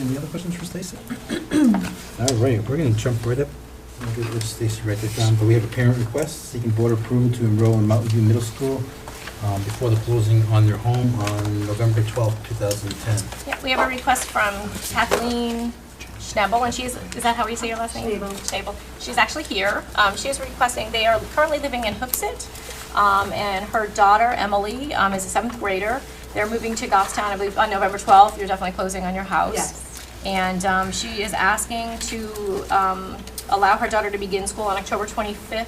Any other questions for Stacy? All right, we're going to jump right up. I'll give it to Stacy right there, John, but we have a parent request seeking board approval to enroll in Mountain View Middle School um, before the closing on their home on November twelfth, two 2010. Yeah, we have a request from Kathleen Schnabel, and she's, is that how you say your last name? Schnabel. She's actually here. Um, She is requesting, they are currently living in Hooksett, um, and her daughter Emily um, is a seventh grader. They're moving to Goffstown, I believe, on November 12th. You're definitely closing on your house. Yes. And um, she is asking to um, allow her daughter to begin school on October 25th,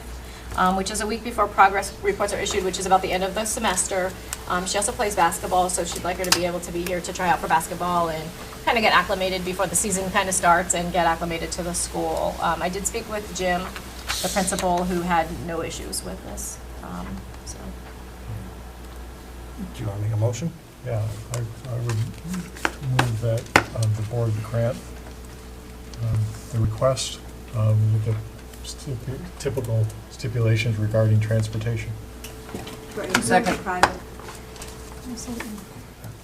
um, which is a week before progress reports are issued, which is about the end of the semester. Um, She also plays basketball, so she'd like her to be able to be here to try out for basketball and kind of get acclimated before the season kind of starts and get acclimated to the school. Um, I did speak with Jim, the principal, who had no issues with this, um, so. Do you want to make a motion? Yeah, I, I would move that uh, the board grant um, the request um, with the stipu- typical stipulations regarding transportation. Second. Private.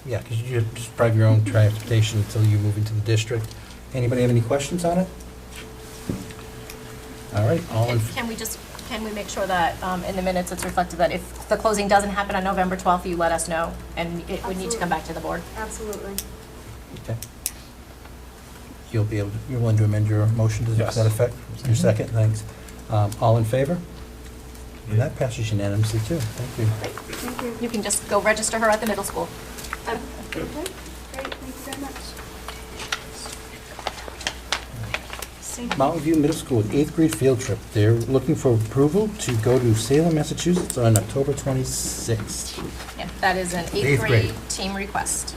Yeah, because you just drive your own transportation until you move into the district. Anybody have any questions on it? All right, all in, And Can we just, can we make sure that um, in the minutes it's reflected that if the closing doesn't happen on November 12th, you let us know, and it would need to come back to the board? Absolutely. okay. You'll be able, you're willing to amend your motion to Yes. that effect? Your second, thanks. Um, All in favor? And that passes unanimously too, thank you. Thank you. You can just go register her at the middle school. Um, Okay, great, thank you very much. Mountain View Middle School, eighth grade field trip. They're looking for approval to go to Salem, Massachusetts on October 26th. Yeah, that is an Eighth eighth grade. grade team request.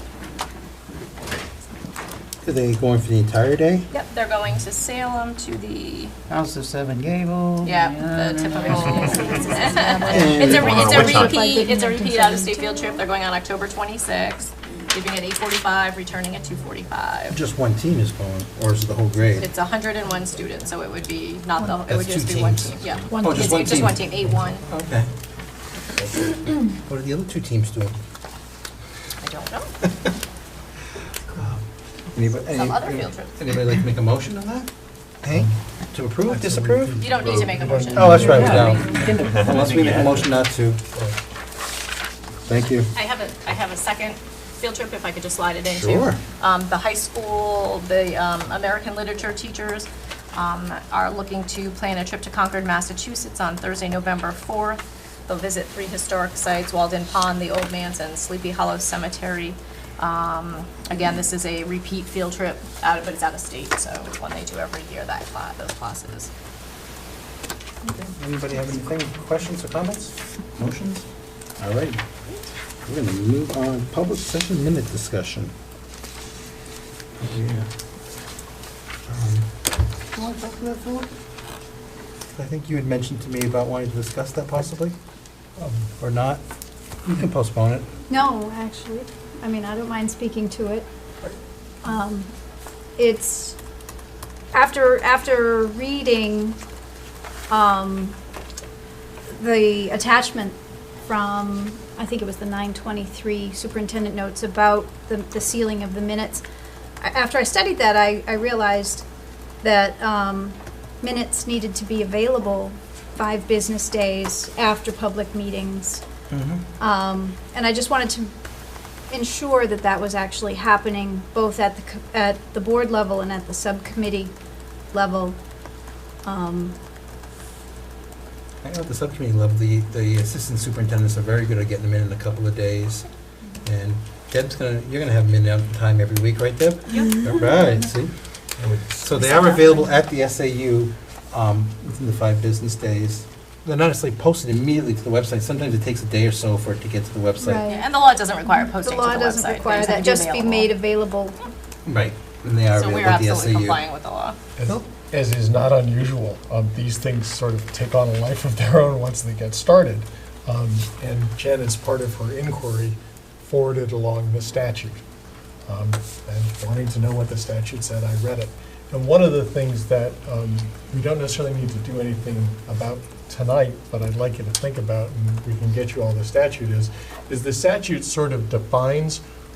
Are they going for the entire day? Yep, they're going to Salem to the, House of Seven Gables. Oh, yeah, the typical. And- It's a, re- What it's a time? repeat, it's a repeat out-of-state field trip. They're going on October 26th, leaving at 8:45, returning at 2:45. Just one team is going, or is it the whole grade? It's 101 students, so it would be not the, it That's would just two be one teams. team, yeah. Oh, just It's one Just team. one team, eight one, Okay. What are the other two teams doing? I don't know. Anybody? Some other field trips. Anybody like to make a motion on that? Hank, to approve, disapprove? You don't need to make a motion. Oh, that's right, we don't. Unless we make a motion not to. Thank you. I have a, I have a second field trip, if I could just slide it in too. Sure. Um, the high school, the, um, American literature teachers, um, are looking to plan a trip to Concord, Massachusetts on Thursday, November fourth. They'll visit three historic sites, Walden Pond, the Old Manse, and Sleepy Hollow Cemetery. Um, again, this is a repeat field trip, out, of- but it's out of state, so it's one they do every year, that class, those classes. Anybody have anything, questions or comments? Motions? All right. We're going to move on, public session minute discussion. Oh, yeah. Um, You want to talk to that, Philip? I think you had mentioned to me about wanting to discuss that possibly, um, or not. You can postpone it. No, actually, I mean, I don't mind speaking to it. Um, It's, after, after reading um, the attachment from, I think it was the 923 superintendent notes about the the sealing of the minutes, a- after I studied that, I, I realized that um, minutes needed to be available five business days after public meetings. Um, and I just wanted to ensure that that was actually happening both at the, co- at the board level and at the subcommittee level. Um, I know at the subcommittee level, the, the assistant superintendents are very good at getting them in in a couple of days. And Deb's gonna, you're gonna have them in on time every week, right, Deb? All right, see? So they are available at the SAU um, within the five business days. They're not necessarily posted immediately to the website. Sometimes it takes a day or so for it to get to the website. Right. Yeah, And the law doesn't require The posting to the website. law doesn't They require have that, to just be available. made available. Right, and they are So we're available at the SAU. absolutely complying with the law. As- Cool. As is not unusual, um, these things sort of take on a life of their own once they get started. Um, And Jen, as part of her inquiry, forwarded along the statute. Um, And wanting to know what the statute said, I read it. And one of the things that um, we don't necessarily need to do anything about tonight, but I'd like you to think about, and we can get you all the statute is, is the statute sort of defines